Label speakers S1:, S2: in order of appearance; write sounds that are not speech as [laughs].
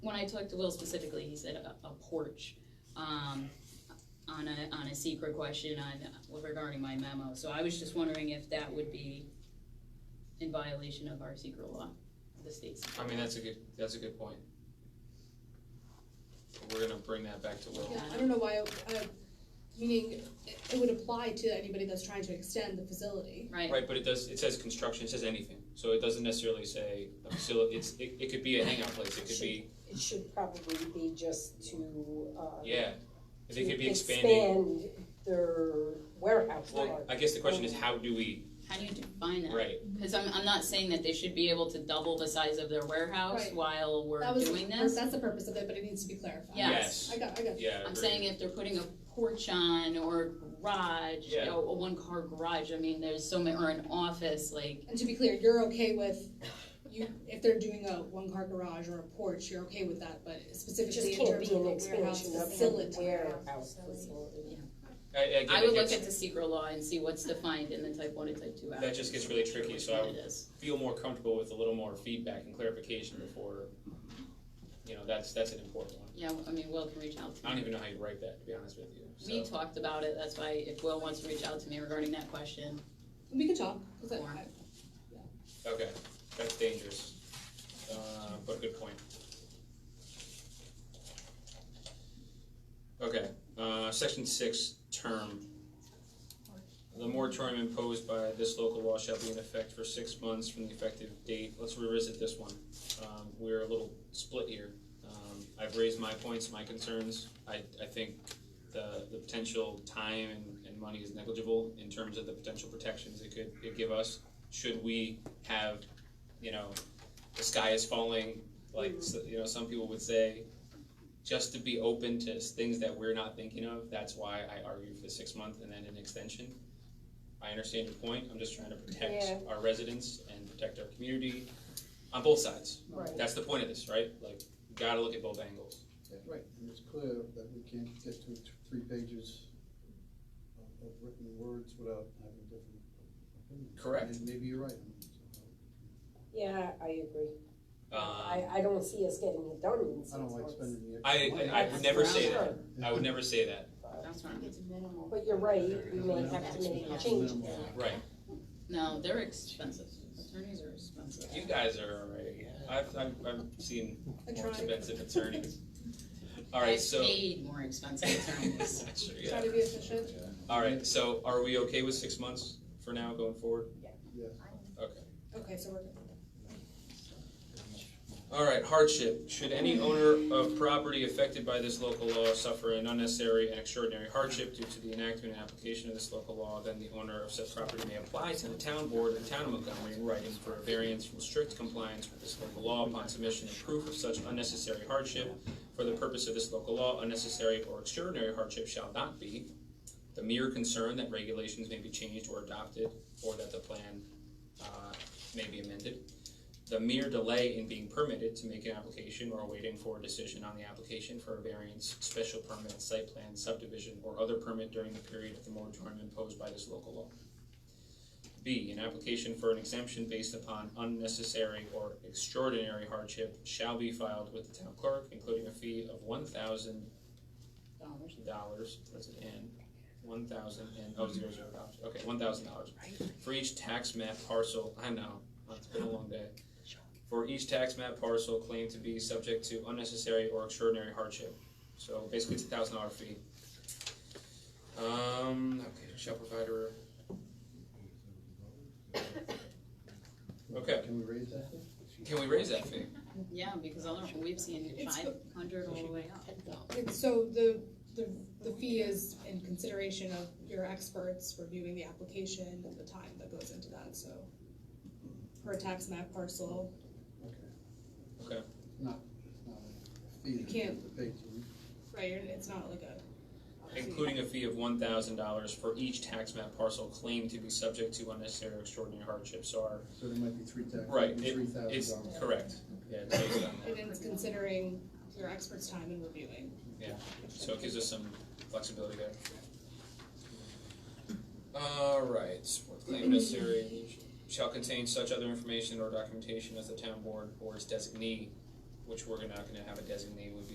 S1: I talked to Will specifically, he said a, a porch, um, on a, on a secret question on, regarding my memo, so I was just wondering if that would be in violation of our secret law, the state's.
S2: I mean, that's a good, that's a good point. We're gonna bring that back to Will.
S3: Yeah, I don't know why, uh, meaning it it would apply to anybody that's trying to extend the facility.
S1: Right,
S2: Right, but it does, it says construction, it says anything, so it doesn't necessarily say a facility, it's, it, it could be a hangout place, it could be,
S4: It should probably be just to, uh.
S2: yeah. If it could be
S4: to
S2: expanding,
S4: Expand their warehouse
S2: well,
S4: part.
S2: I guess the question is, how do we,
S1: how do you define that?
S2: right,
S1: Cause I'm, I'm not saying that they should be able to double the size of their warehouse
S3: Right.
S1: while we're
S3: That was,
S1: doing this.
S3: that's the purpose of it, but it needs to be clarified.
S1: Yeah.
S2: yes,
S3: I got, I got,
S2: yeah,
S1: I'm
S2: agreed.
S1: saying if they're putting a porch on or a garage, you
S2: Yeah.
S1: know, a one car garage, I mean, there's so many, or an office, like,
S3: and to be clear, you're okay with, you, if they're doing a one-car garage or a porch, you're okay with that, but
S4: It just
S3: specifically in
S4: can't
S3: terms
S4: be
S3: of
S4: an
S3: the warehouse
S4: expansion of
S3: facility.
S4: the warehouse facility.
S2: I, I
S1: I
S2: get
S1: would
S2: it
S1: look
S2: gets,
S1: at the secret law and see what's defined in the type one and type two
S2: That
S1: act.
S2: just gets really tricky, so I
S1: Which
S2: would-
S1: one it is.
S2: feel more comfortable with a little more feedback and clarification before, you know, that's, that's an important one.
S1: Yeah, I mean, Will can reach out to
S2: I don't
S1: me.
S2: even know how you write that, to be honest with you, so.
S1: We talked about it, that's why if Will wants to reach out to me regarding that question,
S3: We can talk, 'cause I-
S1: Or-
S3: I-
S2: Okay, that's dangerous, uh, but good point. Okay, uh, section six, term. The moratorium imposed by this local law shall be in effect for six months from the effective date. Let's revisit this one. Um, we're a little split here. Um, I've raised my points, my concerns. I, I think the, the potential time and, and money is negligible in terms of the potential protections it could, it give us. Should we have, you know, the sky is falling, like, s- you know, some people would say, just to be open to s- things that we're not thinking of, that's why I argue for the six month and then an extension. I understand your point, I'm just trying to
S4: Yeah.
S2: protect our residents and protect our community on both sides.
S4: Right.
S2: That's the point of this, right? Like, you gotta look at both angles.
S5: And it's clear that we can't get to th- three pages of, of written words without having different opinions.
S2: Correct.
S5: And maybe you're right.
S4: Yeah, I agree.
S2: Um,
S4: I, I don't see us getting it done in six
S5: I don't like
S4: months.
S5: spending the.
S2: I-
S5: extra money.
S2: I would never say
S4: that.
S2: Um, I would never say that,
S1: that's what I'm.
S4: But you're right, we may have to make a change.
S2: right?
S1: No, they're expensive, attorneys are expensive.
S2: You guys are already, I've, I've, I've seen
S3: I
S2: more
S3: tried,
S2: expensive
S3: [laughs]
S2: attorneys. All right, so.
S1: I paid more expensive
S2: [laughs]
S1: attorneys. [laughs]
S2: Sure,
S3: try
S2: yeah.
S3: to be efficient.
S2: All right, so are we okay with six months for now going forward?
S5: Yes.
S2: Okay.
S3: Okay, so we're good.
S2: All right, hardship. Should any owner of property affected by this local law suffer an unnecessary and extraordinary hardship due to the enactment and application of this local law, then the owner of such property may apply to the town board of the town of Montgomery in writing for a variance from strict compliance with this local law upon submission of proof of such unnecessary hardship. For the purpose of this local law, unnecessary or extraordinary hardship shall not be the mere concern that regulations may be changed or adopted, or that the plan, uh, may be amended the mere delay in being permitted to make an application or waiting for a decision on the application for a variance, special permit, site plan, subdivision, or other permit during the period of the moratorium imposed by this local law. B, an application for an exemption based upon unnecessary or extraordinary hardship shall be filed with the town clerk, including a fee of one thousand
S1: Dollars.
S2: dollars, that's an N, one thousand and, oh, zero, zero dollars, okay, one thousand dollars. For each tax map parcel, I know, it's been a long day. For each tax map parcel claimed to be subject to unnecessary or extraordinary hardship. So basically, it's a thousand dollar fee. Um, okay, shall provide a. Okay,
S5: Can we raise that?
S2: can we raise that fee?
S1: Yeah, because all of, we've seen
S3: It's
S1: five hundred all the way up.
S3: And so the, the, the fee is in consideration of your experts reviewing the application and the time that goes into that, so. Per tax map parcel,
S2: Okay,
S5: No, Fee
S3: You
S5: that you
S3: can't-
S5: have to pay to.
S3: right, you're- it's not like a.
S2: including a fee of one thousand dollars for each tax map parcel claimed to be subject to unnecessary or extraordinary hardship, so our,
S5: So there might be three tax,
S2: Right, it-
S5: three thousand
S2: it's
S5: dollars.
S2: correct. Yeah, uh, it's based on that.
S3: And it's considering your expert's time in reviewing.
S2: So it gives us some flexibility there. Alright, what claim necessary shall contain such other information or documentation as the town board or its designee which we're not gonna have a designated